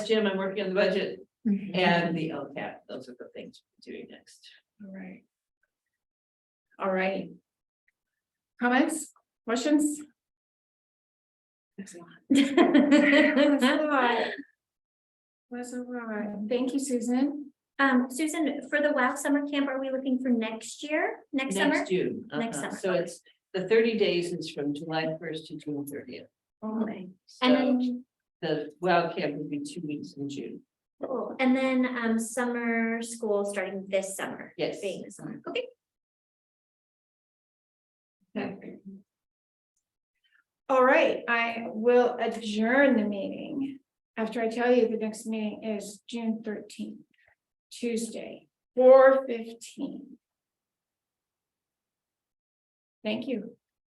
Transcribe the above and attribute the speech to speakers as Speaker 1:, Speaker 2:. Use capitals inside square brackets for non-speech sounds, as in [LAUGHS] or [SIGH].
Speaker 1: Jim, I'm working on the budget
Speaker 2: Mm-hmm.
Speaker 1: and the LCAP, those are the things we're doing next.
Speaker 2: All right. All right. Comments, questions? That's a lot.
Speaker 3: [LAUGHS]
Speaker 2: That's a lot. That's a lot. Thank you, Susan.
Speaker 3: Um, Susan, for the WOW summer camp, are we looking for next year, next summer?
Speaker 1: Next June.
Speaker 3: Next
Speaker 1: uh-huh.
Speaker 3: summer,
Speaker 1: So
Speaker 3: okay.
Speaker 1: it's, the thirty days is from July first to June thirtieth.
Speaker 3: Okay.
Speaker 1: So
Speaker 3: And then,
Speaker 1: the WOW camp would be two weeks in June.
Speaker 3: cool. and then, um, summer school starting this summer,
Speaker 1: Yes.
Speaker 3: being the summer, okay?
Speaker 2: All right, I will adjourn the meeting after I tell you the next meeting is June thirteenth, Tuesday, four fifteen. Thank you.